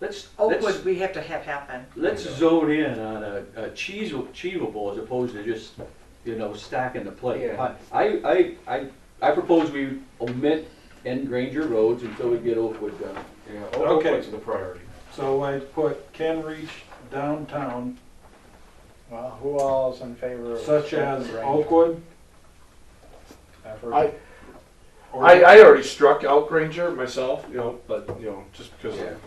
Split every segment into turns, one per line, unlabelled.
let's,
Oakwood,
let's,
we have to have happen.
let's zone in on a, a cheese- achievable as opposed to just, you know, stacking the plate.
Yeah.
I, I, I, I propose we omit and Granger roads until we get uh, Oakwood done.
Yeah,
Okay.
Oakwood's the priority.
So I put can reach downtown
Well, who all is in favor of?
such as
Range?
Oakwood.
I've heard-
I,
or-
I, I already struck out Granger myself, you know, but, you know, just because. of-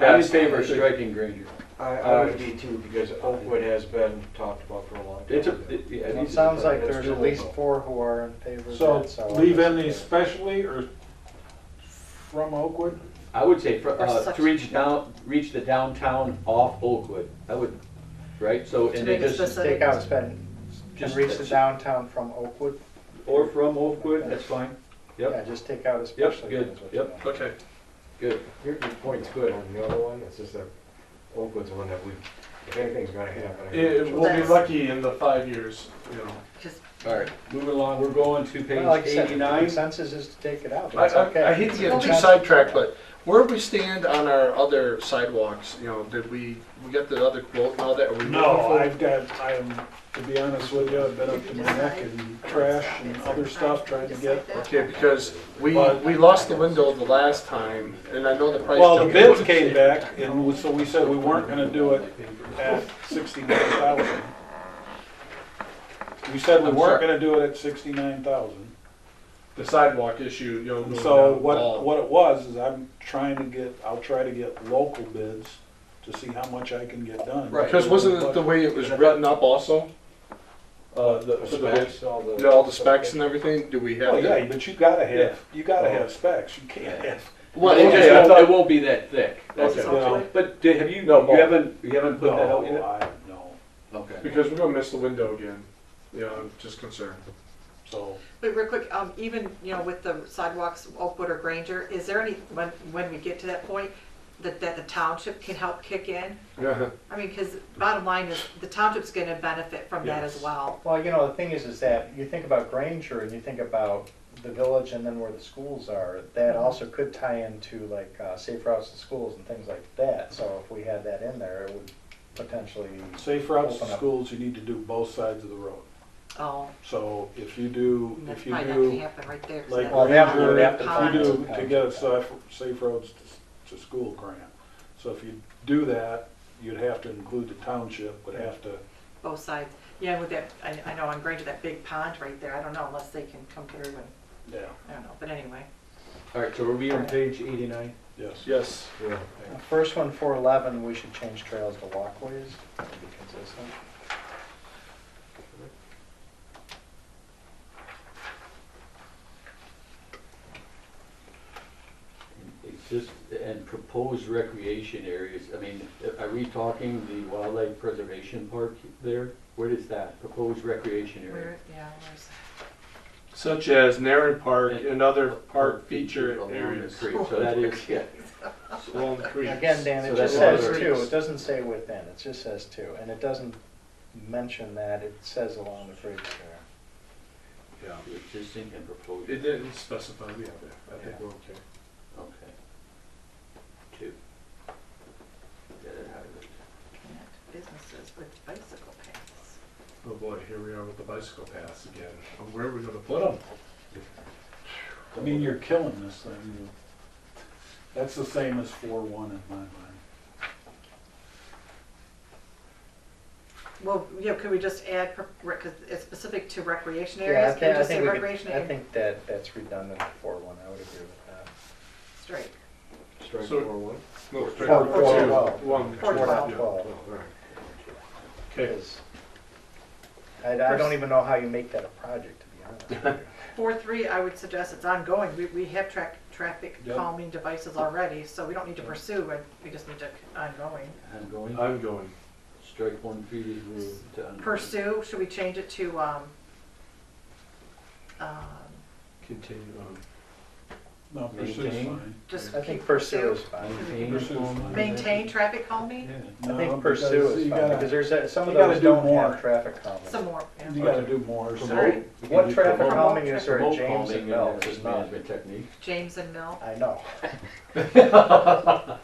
I'm in favor of striking Granger. Uh,
I,
uh,
I would be too, because Oakwood has been talked about for a long time.
It's a, it- yeah.
Well, It
these are-
sounds like
It's
there's at least
doable.
four who are in favor of
So
that, so. I
leave
guess
in the
it-
specially or from Oakwood?
I would say, for-
Or
uh,
such-
to reach down, reach the downtown off Oakwood, I would, right, so,
To
and
make
then
it
just,
specific.
Take out spend, and
Just-
reach the downtown from Oakwood.
or from Oakwood, that's fine, Yep.
Yeah, just take out especially.
good,
is what
yep.
you want.
Okay,
good.
Your, your point's good on the other one, it's just that Oakwood's the one that we, if anything's gonna happen. I-
It- we'll be lucky in the five years, you know.
Just-
All right, moving along, we're going to
Well, Like
page
I said, the
eighty-nine.
consensus is to take it out,
I,
that's okay.
I, I hate to get too
Consensus.
sidetracked, but where do we stand on our other sidewalks? You know, did we, we get the other quote and all that? Are we moving
No,
forward?
I've got, I'm, to be honest with you, I've been up to my neck in trash and other stuff trying to get.
Okay, because we,
But-
we lost the window the last time, and I know the price.
Well, the
didn't go
bids
to-
came back and we- so we said we weren't gonna do it at sixty-nine thousand. We said we
I'm
weren't
sorry.
gonna do it at sixty-nine thousand.
The sidewalk issue, you know.
And
going
So
down the
what,
wall.
what it was, is I'm trying to get, I'll try to get local bids to see how much I can get done.
Right.
Because wasn't it the way it was written up also? Uh, the, for the bids?
Specs, all the.
You know, all the specs and everything, do we have?
Well,
to-
Oh, yeah, but you gotta
Yeah.
have, you gotta have specs, you can't have.
Well,
It just
okay, I
won't-
thought-
It won't be that thick, that's
Okay.
all.
No.
But did- have you, you
No, Paul.
haven't, you haven't put that out
No,
yet?
I, no,
Okay.
because we're gonna miss the window again. You know, I'm just concerned.
so.
But real quick, um, even, you know, with the sidewalks, Oakwood or Granger, is there any, when, when we get to that point, that, that the township can help kick in? I mean, cause bottom line is, the township's gonna benefit from that as
Yes.
well.
Well, you know, the thing is, is that you think about Granger and you think about the village and then where the schools are. That
Mm-hmm.
also could tie into like uh, safe routes to schools and things like that. So if we had that in there, it would potentially.
Safe routes to
Open up.
schools, you need to do both sides of the road.
Oh,
So if you do,
and that's
if you
probably not gonna
do,
happen right there. 'cause
like
that's
Well, that
not
would
Ranger,
have
if
to
pond.
you do,
find some
to
kind
get a
of-
safe, safe roads to, to school grant. So if you do that, you'd have to include the township, would have to,
Both sides, yeah, with that, I, I know on Granger, that big pond right there, I don't know unless they can come through and,
yeah,
I don't know, but anyway.
All right, so are we on page eighty-nine?
yes.
Yes.
Yeah.
The First one, four eleven, we should change trails to walkways to be consistent.
Just, and proposed recreation areas, I mean, are we talking the wildlife preservation park there? Where is that, proposed recreation area?
Where, yeah, where's
Such as Narren Park and other park feature
Along the
areas.
creek, So that is, yeah,
Along the creek.
Again, Dan,
So
it just
that's
says
another-
two, it doesn't say within, it just says two, and it doesn't mention that, it says along the creek there.
Yeah.
the existing and proposed,
It didn't specify the other. I think we're okay.
okay. Two. Yeah, that highway.
that? Businesses with bicycle paths.
Oh boy, here we are with the bicycle paths again. Oh, Where are we gonna put them?
I mean, you're killing this thing. You- That's the same as four one in my mind.
Well, yeah, could we just add, because it's specific to recreation
Yeah, I
areas,
think,
can we
I
just say
think we
recreation
could, I
area?
think that, that's redundant for one, I would agree with that.
Straight.
Strike
So-
four one.
Four,
Four, four, twelve.
One.
Four, twelve.
Yeah.
Oh,
Well,
all right.
Okay,
because I, I don't even know how you make that a project, to be honest with you.
Four, three, I would suggest it's ongoing, we, we have track, traffic
Yep.
calming devices already, so we don't need to pursue, it. we just need to ongoing.
Ongoing,
I'm going.
strike one previous rule to ongoing.
Pursue, should we change it to, um, um,
Continue on.
No, pursue's
Maintain.
fine.
just
I
keep
think pursue is
pursue?
fine.
Pursue's fine.
Maintain traffic calming,
Yeah.
I
No,
think
because
pursue is
you
fine,
gotta-
because there's, that- some of
you gotta
those
do
don't
more.
have traffic calming.
some more, yeah.
You gotta do more. so-
Sorry.
Promote-
What traffic
promote-
calming is there at
Promote
James
calming
and
and
Mills?
access
None.
management technique.
James and Mill,
I know.